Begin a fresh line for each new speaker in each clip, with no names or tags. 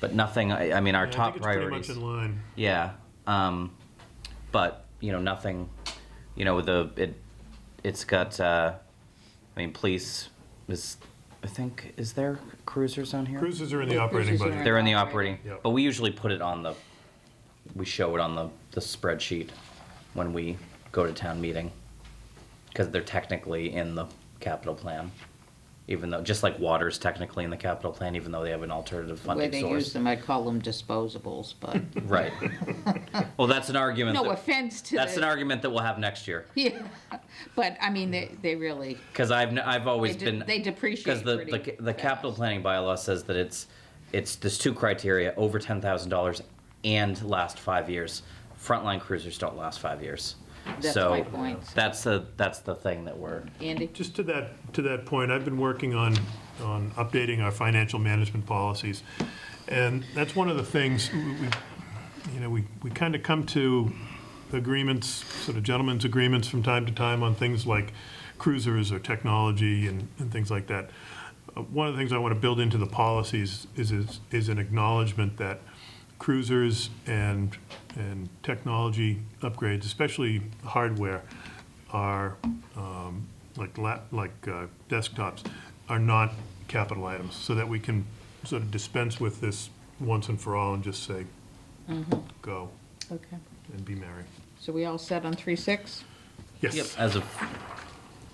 but nothing, I, I mean, our
I
top
think it's pretty
priorities.
much in line.
Yeah, um, but you know nothing. You know the it, it's got. Uh, I mean, police is. I think is there cruisers on here?
Cruises are in the operating
Cruises are
budget.
They're in the operating,
Yep.
but we usually put it on the. We show it on the the spreadsheet when we go to town meeting, because they're technically in the capital plan. Even though, just like water's technically in the capital plan, even though they have an alternative
The way
funding
they use
source.
them, I call them disposables, but
Right. well, that's an argument.
no
that-
offense to the.
That's an argument that we'll have next year.
Yeah, but I mean, they, they really,
Because I've, n- I've
they
always
de-
been,
they
because
depreciate
the,
pretty
the, the
fast.
capital planning bylaw says that it's, it's, there's two criteria, over ten thousand dollars and last five years. Frontline cruisers don't last five years.
That's
So,
my point.
That's the, that's the thing that we're,
Andy,
Just to that, to that point, I've been working on, on updating our financial management policies. And that's one of the things, we, we- you know, we, we kind of come to agreements, sort of gentlemen's agreements from time to time on things like cruisers or technology and, and things like that. Uh, One of the things I want to build into the policies is, is, is an acknowledgement that cruisers and, and technology upgrades, especially hardware, are, um, like lap, like uh, desktops, are not capital items, so that we can sort of dispense with this once and for all and just say, go
okay,
and be merry.
so we all set on three, six?
yep,
Yes.
as of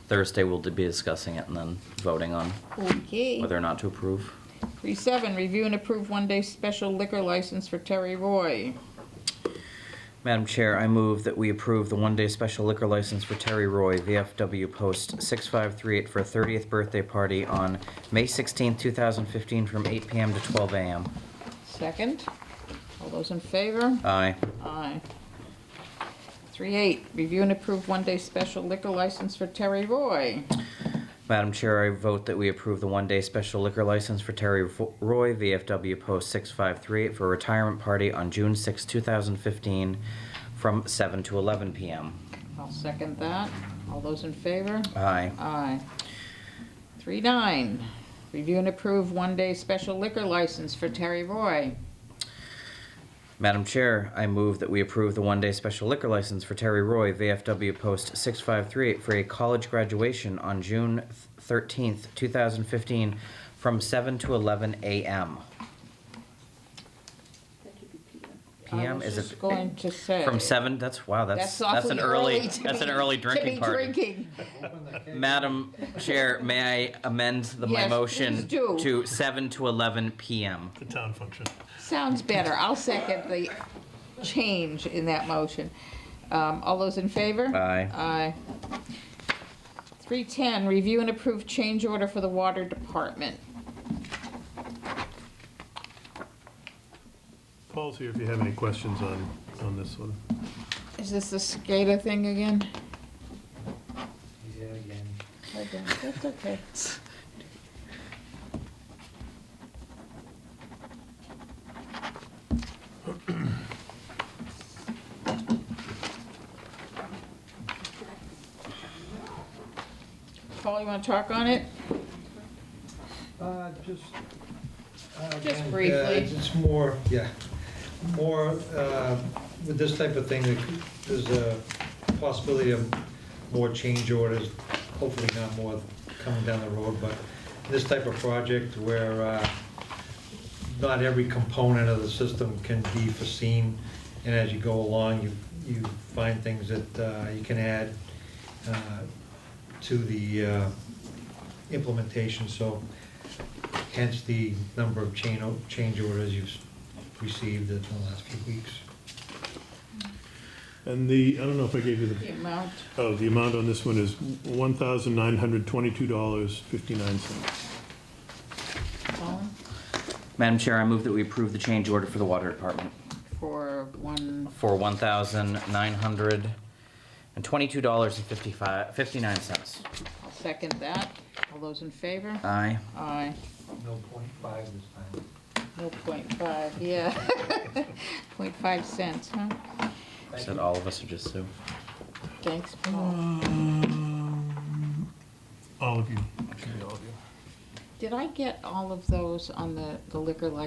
Thursday, we'll be discussing it and then voting on
Okay.
whether or not to approve.
Three, seven, review and approve one-day special liquor license for Terry Roy.
Madam Chair, I move that we approve the one-day special liquor license for Terry Roy, VFW Post 6538, for a 30th birthday party on May 16, 2015, from 8 PM to 12 AM.
Second, all those in favor?
Aye.
Aye. Three, eight, review and approve one-day special liquor license for Terry Roy.
Madam Chair, I vote that we approve the one-day special liquor license for Terry Fo- Roy, VFW Post 6538, for a retirement party on June 6, 2015, from 7 to 11 PM.
I'll second that. All those in favor?
Aye.
Aye. Three nine, review and approve one-day special liquor license for Terry Roy.
Madam Chair, I move that we approve the one-day special liquor license for Terry Roy, VFW Post 6538, for a college graduation on June 13th, 2015, from 7 to 11 a.m. PM, is
I was just
it
going to say.
from 7? That's, wow, that's,
That's
that's an
awfully
early,
early to
that's an
be-
early
To be
drinking party.
drinking.
Madam Chair, may I amend the- my
Yes,
motion
please do.
to 7 to 11 p.m.?
The town function.
Sounds better. I'll second the change in that motion. Um, All those in favor?
Aye.
Aye. 310, review and approve change order for the water department.
Paul's here if you have any questions on, on this one.
Is this the SCADA thing again?
He's there again.
I don't- That's okay. Paul, you want to talk on it?
Uh, just. uh,
Just
again, uh,
briefly.
It's it's more, yeah, more, uh, with this type of thing, there could- there's a possibility of more change orders, hopefully not more coming down the road, but this type of project where uh, not every component of the system can be foreseen, and as you go along, you, you find things that uh, you can add uh, to the uh, implementation, so hence the number of chain, o- change orders you've received in the last few weeks.
And the, I don't know if I gave you the,
The amount.
oh, the amount on this one is $1,922.59.
Colin,
Madam Chair, I move that we approve the change order for the water department.
For one,
for one thousand nine hundred and twenty-two dollars and fifty-five, fifty-nine cents.
I'll second that. All those in favor?
Aye.
Aye.
No point five this time.
No point five, yeah. Point five cents, huh?
Said all of us are just Sue.
Thanks, Paul.
All of you.
Did I get all of those on the the liquor license